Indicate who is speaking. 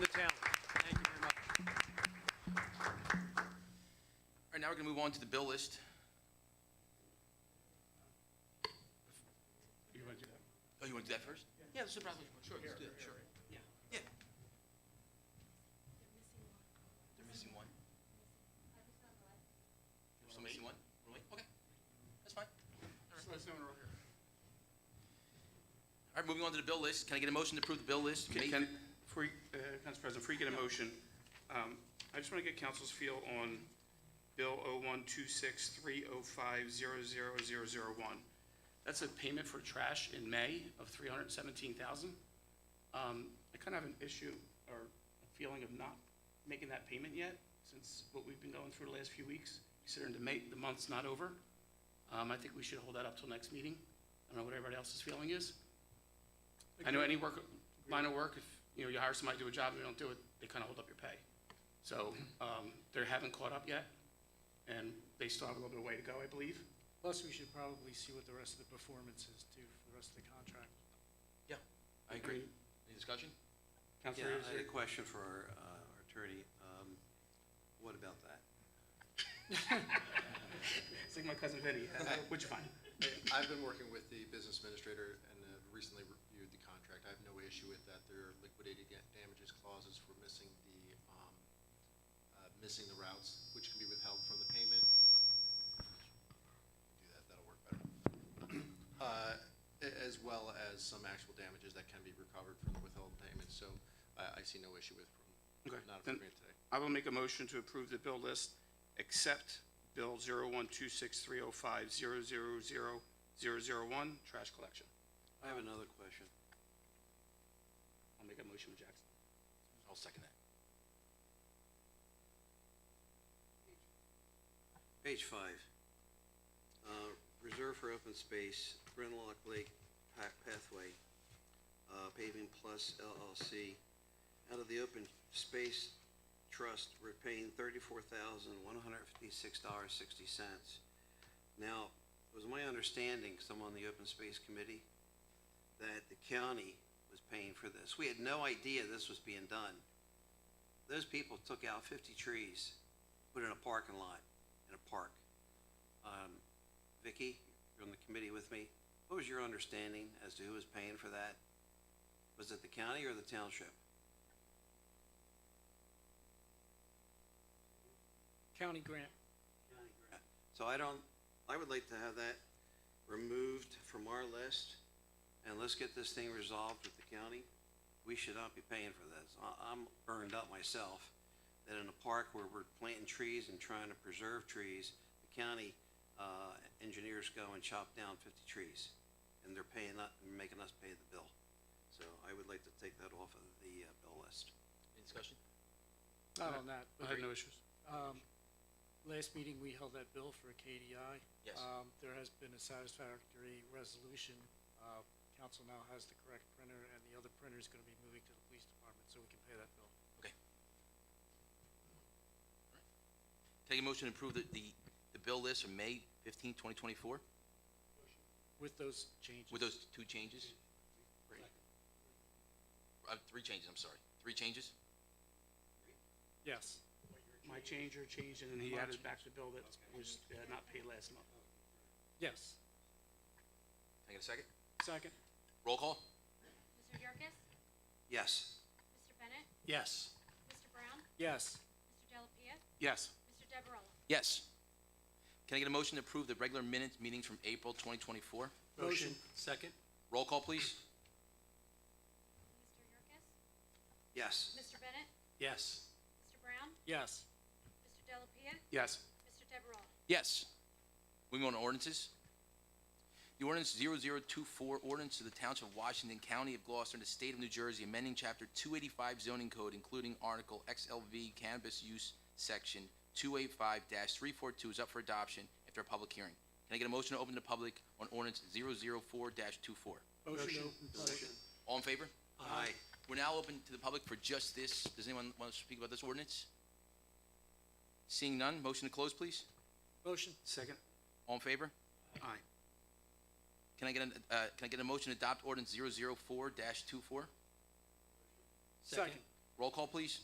Speaker 1: the town. Thank you very much.
Speaker 2: All right, now we're going to move on to the bill list. You want to do that? Oh, you want to do that first? Yeah, that's no problem. Sure, let's do that, sure. Yeah, yeah. They're missing one. They're still missing one? Really? Okay, that's fine. All right, moving on to the bill list. Can I get a motion to approve the bill list?
Speaker 3: Can,
Speaker 2: May-
Speaker 3: can, before, you- uh, Council President, before you get a motion, um, I just want to get council's feel on Bill 0126305000001. That's a payment for trash in May of 317000 Um, I kind of have an issue or a feeling of not making that payment yet, since what we've been going through the last few weeks, considering the May, the month's not over. Um, I think we should hold that up till next meeting. I don't know what everybody else's feeling is. I know any work, line of work, if, you know, you hire somebody to do a job and they don't do it, they kind of hold up your pay. So, um, they haven't caught up yet, and they still have a little bit of way to go, I believe.
Speaker 4: Plus, we should probably see what the rest of the performance is too, for the rest of the contract.
Speaker 2: Yeah, I agree. Any discussion?
Speaker 3: Counselor,
Speaker 5: Yeah,
Speaker 3: is
Speaker 5: I had
Speaker 3: there-
Speaker 5: a question for our uh, our attorney. Um, What about that?
Speaker 3: it's like my cousin Vinny, Uh, what'd you find?
Speaker 6: I've been working with the business administrator and have recently reviewed the contract. I have no issue with that. There are liquidated da- damages clauses for missing the, um, uh, missing the routes, which can be withheld from the payment. Do that, that'll work better. Uh, a- As well as some actual damages that can be recovered from the withheld payments, so I, I see no issue with,
Speaker 3: Okay,
Speaker 6: not
Speaker 3: then-
Speaker 6: approving it today.
Speaker 3: I will make a motion to approve the bill list, except Bill oh 0126305000001, trash collection.
Speaker 5: I have another question.
Speaker 3: I'll make a motion with Jackson.
Speaker 2: I'll second that.
Speaker 5: Page five. Uh, Reserve for open space, Bryn Lock Lake Pa- Pathway, uh, Paving Plus LLC. Out of the open space trust, we're paying thirty-four thousand, one hundred fifty-six dollars, sixty cents. Now, it was my understanding, because I'm on the open space committee, that the county was paying for this. We had no idea this was being done. Those people took out fifty trees, put in a parking lot, in a park. Um, Vicky, you're on the committee with me. What was your understanding as to who was paying for that? Was it the county or the township?
Speaker 4: County grant.
Speaker 5: So I don't, I would like to have that removed from our list, and let's get this thing resolved with the county. We should not be paying for this. I, I'm burned up myself, that in a park where we're planting trees and trying to preserve trees, the county, uh, engineers go and chop down fifty trees, and they're paying, us- making us pay the bill. So I would like to take that off of the, uh, bill list.
Speaker 2: Any discussion?
Speaker 4: Not on that.
Speaker 3: I have no issues.
Speaker 4: Um, last meeting, we held that bill for KDI.
Speaker 2: Yes.
Speaker 4: Um, there has been a satisfactory resolution. Uh, council now has the correct printer, and the other printer is gonna be moving to the police department, so we can pay that bill.
Speaker 2: Okay. Take a motion to approve the, the, the bill list from May fifteenth, twenty twenty-four,
Speaker 4: With those changes.
Speaker 2: with those two changes? Uh, three changes, I'm sorry, three changes?
Speaker 4: Yes.
Speaker 3: My change or change, and then he added back the bill that was uh, not paid last month.
Speaker 4: Yes.
Speaker 2: Can I get a second?
Speaker 4: Second?
Speaker 2: Roll call?
Speaker 7: Mr. Yerkes?
Speaker 5: Yes,
Speaker 7: Mr. Bennett?
Speaker 4: Yes.
Speaker 7: Mr. Brown?
Speaker 4: Yes.
Speaker 7: Mr. Delapia?
Speaker 3: Yes.
Speaker 7: Mr. Deverell?
Speaker 2: Yes. Can I get a motion to approve the regular minutes meetings from April twenty twenty-four?
Speaker 4: Motion.
Speaker 2: Roll call, please?
Speaker 7: Mr. Yerkes?
Speaker 5: yes.
Speaker 7: Mr. Bennett?
Speaker 3: Yes.
Speaker 7: Mr. Brown?
Speaker 4: Yes.
Speaker 7: Mr. Delapia?
Speaker 3: Yes.
Speaker 7: Mr. Deverell?
Speaker 2: Yes. Moving on to ordinances. The ordinance 0024, ordinance to the Township of Washington, County of Gloucester, and the State of New Jersey, amending Chapter 285 zoning code, including Article XLV cannabis use, Section 285-342 is up for adoption after a public hearing. Can I get a motion to open to public on ordinance 004-24?
Speaker 4: Motion.
Speaker 2: All in favor?
Speaker 5: Aye.
Speaker 2: We're now open to the public for just this. Does anyone want to speak about this ordinance? Seeing none, motion to close, please.
Speaker 4: Motion.
Speaker 3: Second.
Speaker 2: All in favor?
Speaker 3: Aye.
Speaker 2: Can I get an, uh, can I get a motion to adopt ordinance 004-24?
Speaker 4: Second.
Speaker 2: Roll call, please.